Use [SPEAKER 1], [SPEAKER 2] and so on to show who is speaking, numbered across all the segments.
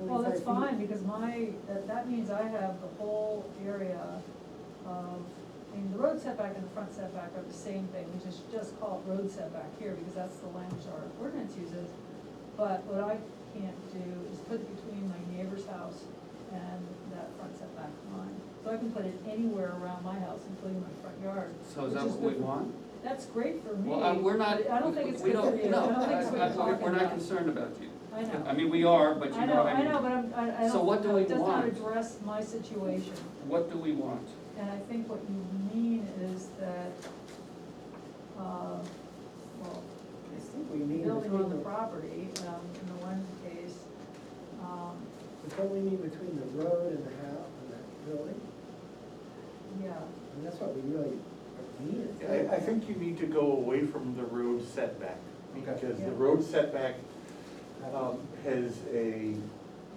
[SPEAKER 1] Well, that's
[SPEAKER 2] feet.
[SPEAKER 1] fine, because my, that, that means I have the whole area of, I mean, the road setback and the front setback are the same thing, we just, just call it road setback here, because that's the language our ordinance uses. But what I can't do is put it between my neighbor's house and that front setback line. So I can put it anywhere around my house, including my front yard.
[SPEAKER 3] So is
[SPEAKER 1] which
[SPEAKER 3] that what we
[SPEAKER 1] good for-
[SPEAKER 3] want?
[SPEAKER 1] That's great for me.
[SPEAKER 3] Well, uh, we're not,
[SPEAKER 1] but I don't think it's
[SPEAKER 3] we
[SPEAKER 1] good for
[SPEAKER 3] don't,
[SPEAKER 1] you, I
[SPEAKER 3] no,
[SPEAKER 1] don't think
[SPEAKER 3] I-
[SPEAKER 1] it's what
[SPEAKER 3] I-
[SPEAKER 1] you're talking
[SPEAKER 3] we're not
[SPEAKER 1] about.
[SPEAKER 3] concerned about you.
[SPEAKER 1] I know.
[SPEAKER 3] I mean, we are, but
[SPEAKER 1] I
[SPEAKER 3] you know,
[SPEAKER 1] know,
[SPEAKER 3] I
[SPEAKER 1] I
[SPEAKER 3] mean,
[SPEAKER 1] know, but I'm, I, I
[SPEAKER 3] So what do
[SPEAKER 1] don't,
[SPEAKER 3] we
[SPEAKER 1] it does not
[SPEAKER 3] want?
[SPEAKER 1] address my situation,
[SPEAKER 3] what do we want?
[SPEAKER 1] and I think what you mean is that, uh, well,
[SPEAKER 2] I think we need
[SPEAKER 1] building on the
[SPEAKER 2] between the,
[SPEAKER 1] property, um, in the one case, um,
[SPEAKER 2] don't we need between the road and the house and that building?
[SPEAKER 1] yeah,
[SPEAKER 2] And that's what we really are needing.
[SPEAKER 4] I, I think you need to go away from the road setback,
[SPEAKER 2] Okay.
[SPEAKER 4] because
[SPEAKER 1] Yeah.
[SPEAKER 4] the road setback,
[SPEAKER 2] Uh,
[SPEAKER 4] um, has a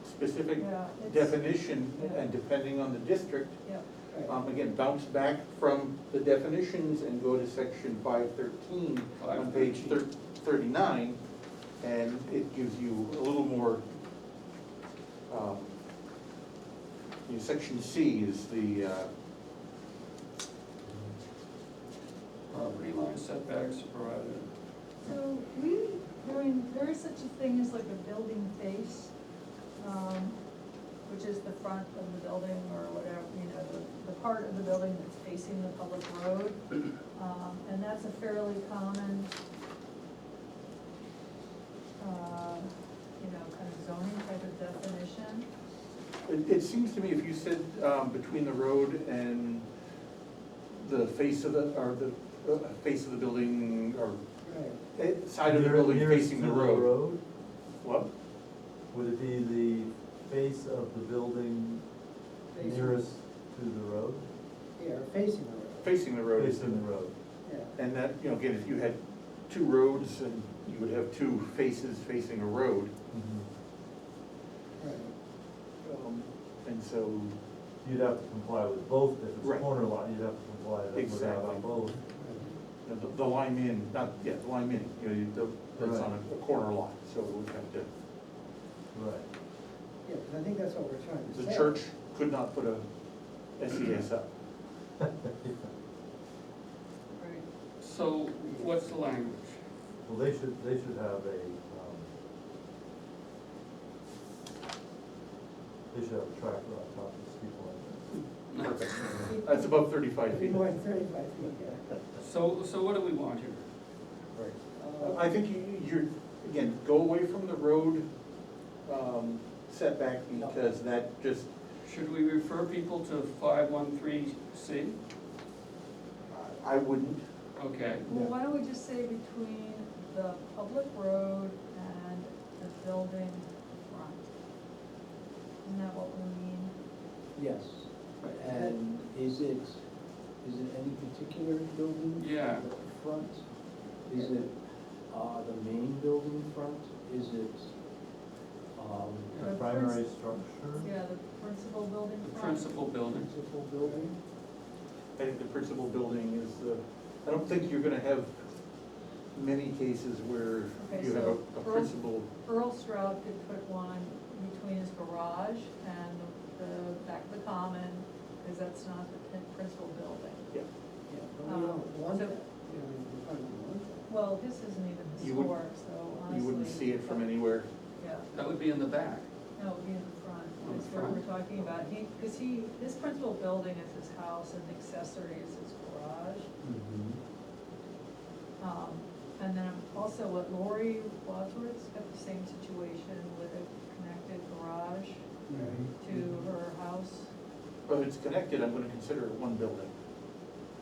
[SPEAKER 4] specific
[SPEAKER 1] yeah, it's,
[SPEAKER 4] definition, and depending on the district,
[SPEAKER 1] yeah,
[SPEAKER 2] right.
[SPEAKER 4] um, again, bounce back from the definitions and go to section five thirteen on page thir- thirty-nine, and it gives you a little more, um, you know, section C is the, uh,
[SPEAKER 3] Property line setbacks provided.
[SPEAKER 1] so we, I mean, there is such a thing as like a building face, um, which is the front of the building or whatever, you know, the, the part of the building that's facing the public road. Um, and that's a fairly common, uh, you know, kind of zoning type of definition.
[SPEAKER 4] It, it seems to me if you said, um, between the road and the face of the, or the, uh, face of the building, or
[SPEAKER 2] Right.
[SPEAKER 4] eh, side of the
[SPEAKER 5] Near-
[SPEAKER 4] building
[SPEAKER 5] nearest
[SPEAKER 4] facing
[SPEAKER 5] to
[SPEAKER 4] the road.
[SPEAKER 5] road,
[SPEAKER 4] What?
[SPEAKER 5] Would it be the face of the building
[SPEAKER 2] Facing-
[SPEAKER 5] nearest to the road?
[SPEAKER 2] Yeah, or facing the road,
[SPEAKER 4] Facing the road. is-
[SPEAKER 5] Facing the road.
[SPEAKER 2] yeah.
[SPEAKER 4] And that, you know, again, if you had two roads and you would have two faces facing a road,
[SPEAKER 5] Mhm.
[SPEAKER 4] Mm-hmm.
[SPEAKER 2] right.
[SPEAKER 4] um, and so,
[SPEAKER 5] You'd have to comply with both, if it's a
[SPEAKER 4] Right.
[SPEAKER 5] corner lot, you'd have to comply with that
[SPEAKER 4] Exactly.
[SPEAKER 5] on both.
[SPEAKER 2] right.
[SPEAKER 4] you know, the, the lime in, not, yeah, the lime in, you know, you- the, that's on a- a corner lot, so it would have to,
[SPEAKER 5] Right.
[SPEAKER 2] Yeah, 'cause I think that's what we're trying to say.
[SPEAKER 4] the church could not put a SES up.
[SPEAKER 1] Right.
[SPEAKER 3] So what's the language?
[SPEAKER 5] Well, they should, they should have a, um, they should have a tracker on top of this people like
[SPEAKER 4] Perfect. That's above thirty-five
[SPEAKER 2] Be
[SPEAKER 4] feet.
[SPEAKER 2] more than thirty-five feet, yeah.
[SPEAKER 3] So, so what do we want here?
[SPEAKER 2] Uh,
[SPEAKER 4] I think you, you're, again, go away from the road um, setback because that just,
[SPEAKER 3] Should we refer people to five one three C?
[SPEAKER 4] I wouldn't.
[SPEAKER 3] Okay,
[SPEAKER 1] Well, why don't we just say between the public road and the building front? Isn't that what we mean?
[SPEAKER 6] Yes, and is it, is it any particular building?
[SPEAKER 3] Yeah.
[SPEAKER 6] Front? Is it, uh, the main building front? Is it, um,
[SPEAKER 5] that.
[SPEAKER 1] The
[SPEAKER 5] A primary structure?
[SPEAKER 1] Yeah, the principal building
[SPEAKER 3] the
[SPEAKER 1] front.
[SPEAKER 3] principal building.
[SPEAKER 6] principal building?
[SPEAKER 4] I think the principal building is the, I don't think you're gonna have many cases where
[SPEAKER 1] Okay,
[SPEAKER 4] you have
[SPEAKER 1] so
[SPEAKER 4] a- a
[SPEAKER 1] road-
[SPEAKER 4] principal.
[SPEAKER 1] Earl Stroud could put one between his garage and the back of the common, because that's not the prin- principal building.
[SPEAKER 2] Yeah, but we don't want
[SPEAKER 1] Um, so-
[SPEAKER 2] that, you know, we probably don't want that.
[SPEAKER 1] Well, his isn't even
[SPEAKER 4] You wouldn't-
[SPEAKER 1] historic, so honestly.
[SPEAKER 4] You wouldn't see it from anywhere.
[SPEAKER 1] Yeah,
[SPEAKER 3] That would be in the back.
[SPEAKER 1] no, it'd be in the front,
[SPEAKER 3] On the
[SPEAKER 1] is what we're
[SPEAKER 3] front.
[SPEAKER 1] talking about. He, because he, his principal building is his house and the accessory is his garage.
[SPEAKER 3] Mm-hmm.
[SPEAKER 1] Um, and then also what Lori Wadsworth's got the same situation with a connected garage to
[SPEAKER 3] Mm-hmm.
[SPEAKER 1] her house.
[SPEAKER 4] But if it's connected, I'm gonna consider it one building.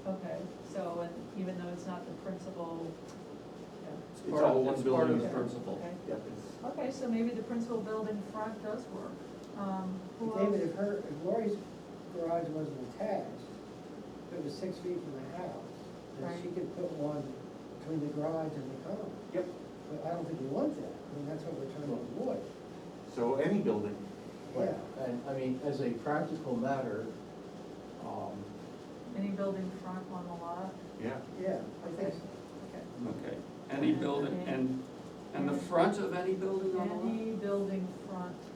[SPEAKER 1] Okay, so, and even though it's not the principal, yeah,
[SPEAKER 4] It's
[SPEAKER 3] part of-
[SPEAKER 4] all one
[SPEAKER 3] it's part of
[SPEAKER 4] building.
[SPEAKER 3] the principal.
[SPEAKER 1] okay.
[SPEAKER 4] Yep, it's-
[SPEAKER 1] Okay, so maybe the principal building front does work. Um, who else?
[SPEAKER 2] David, if her, if Lori's garage wasn't attached, if it was six feet from the house, then she
[SPEAKER 1] Right.
[SPEAKER 2] could put one between the garage and the common.
[SPEAKER 4] Yep,
[SPEAKER 2] But I don't think we want that, I mean, that's what we're trying to avoid.
[SPEAKER 4] so any building.
[SPEAKER 2] Yeah,
[SPEAKER 6] And, I mean, as a practical matter, um,
[SPEAKER 1] Any building front on the lot?
[SPEAKER 4] Yeah.
[SPEAKER 2] yeah, I think so.
[SPEAKER 1] Okay.
[SPEAKER 3] Okay, any building, and, and the front of any building on the lot?
[SPEAKER 1] Any building front